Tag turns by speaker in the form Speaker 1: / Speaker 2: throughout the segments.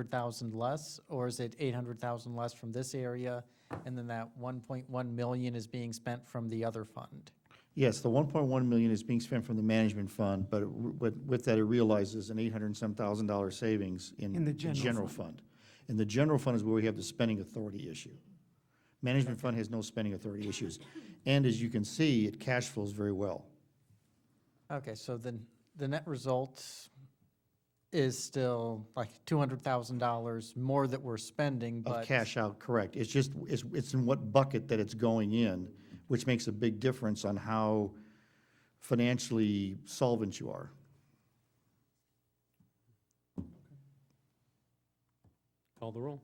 Speaker 1: 100,000 less, or is it 800,000 less from this area, and then that 1.1 million is being spent from the other fund?
Speaker 2: Yes, the 1.1 million is being spent from the management fund, but it- with with that, it realizes an 800 and some thousand dollar savings in
Speaker 3: In the
Speaker 2: the
Speaker 3: general
Speaker 2: general fund. And the general fund is where we have the spending authority issue. Management fund has no spending authority issues. And as you can see, it cash flows very well.
Speaker 1: Okay, so then the net result is still like $200,000 more that we're spending, but.
Speaker 2: Of cash out, correct. It's just, it's, it's in what bucket that it's going in, which makes a big difference on how financially solvent you are.
Speaker 4: Call the roll.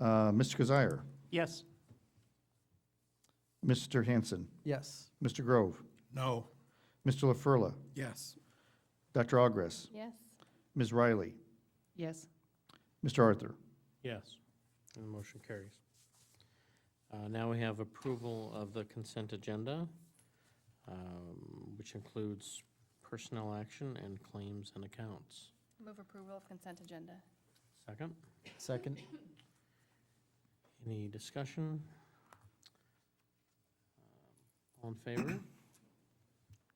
Speaker 2: Uh, Mr. Kazire,
Speaker 4: Yes.
Speaker 2: Mr. Hanson,
Speaker 1: Yes.
Speaker 2: Mr. Grove,
Speaker 5: No.
Speaker 2: Mr. LaFurla,
Speaker 5: Yes.
Speaker 2: Dr. Ogres,
Speaker 6: Yes.
Speaker 2: Ms. Riley,
Speaker 6: Yes.
Speaker 2: Mr. Arthur.
Speaker 4: Yes. And the motion carries. Uh, Now we have approval of the consent agenda, um, which includes personnel action and claims and accounts.
Speaker 6: Move approval of consent agenda.
Speaker 4: Second,
Speaker 1: Second?
Speaker 4: any discussion? Um, All in favor?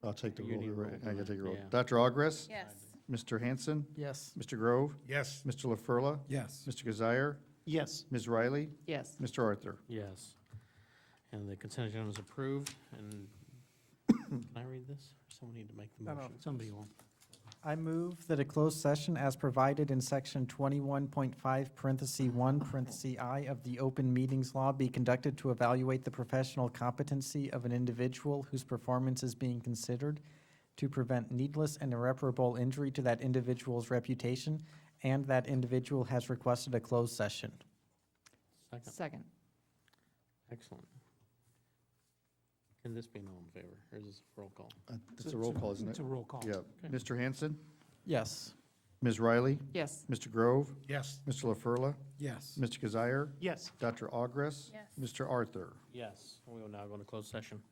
Speaker 2: I'll take the
Speaker 4: You
Speaker 2: roll.
Speaker 4: need
Speaker 2: You're right.
Speaker 4: roll,
Speaker 2: I
Speaker 4: don't
Speaker 2: gotta
Speaker 4: I?
Speaker 2: take a roll.
Speaker 4: Yeah.
Speaker 2: Dr. Ogres,
Speaker 6: Yes.
Speaker 2: Mr. Hanson,
Speaker 1: Yes.
Speaker 2: Mr. Grove,
Speaker 5: Yes.
Speaker 2: Mr. LaFurla,
Speaker 5: Yes.
Speaker 2: Mr. Kazire,
Speaker 4: Yes.
Speaker 2: Ms. Riley,
Speaker 6: Yes.
Speaker 2: Mr. Arthur.
Speaker 4: Yes. And the consent agenda is approved, and can I read this? Someone need to make the
Speaker 1: No, no.
Speaker 4: motion. Somebody will.
Speaker 1: I move that a closed session as provided in section 21.5 parentheses 1 parentheses I of the open meetings law be conducted to evaluate the professional competency of an individual whose performance is being considered to prevent needless and irreparable injury to that individual's reputation and that individual has requested a closed session.
Speaker 4: Second.
Speaker 6: Second.
Speaker 4: Excellent. Can this be an all in favor, or is this a roll call?
Speaker 2: Uh, It's a roll call, isn't it?
Speaker 3: It's a roll call.
Speaker 2: Yeah.
Speaker 4: Okay.
Speaker 2: Mr. Hanson,
Speaker 1: Yes.
Speaker 2: Ms. Riley,
Speaker 6: Yes.
Speaker 2: Mr. Grove,
Speaker 5: Yes.
Speaker 2: Mr. LaFurla,
Speaker 5: Yes.
Speaker 2: Mr. Kazire,
Speaker 4: Yes.
Speaker 2: Dr. Ogres,
Speaker 6: Yes.
Speaker 2: Mr. Arthur.
Speaker 4: Yes, we will now go into closed session.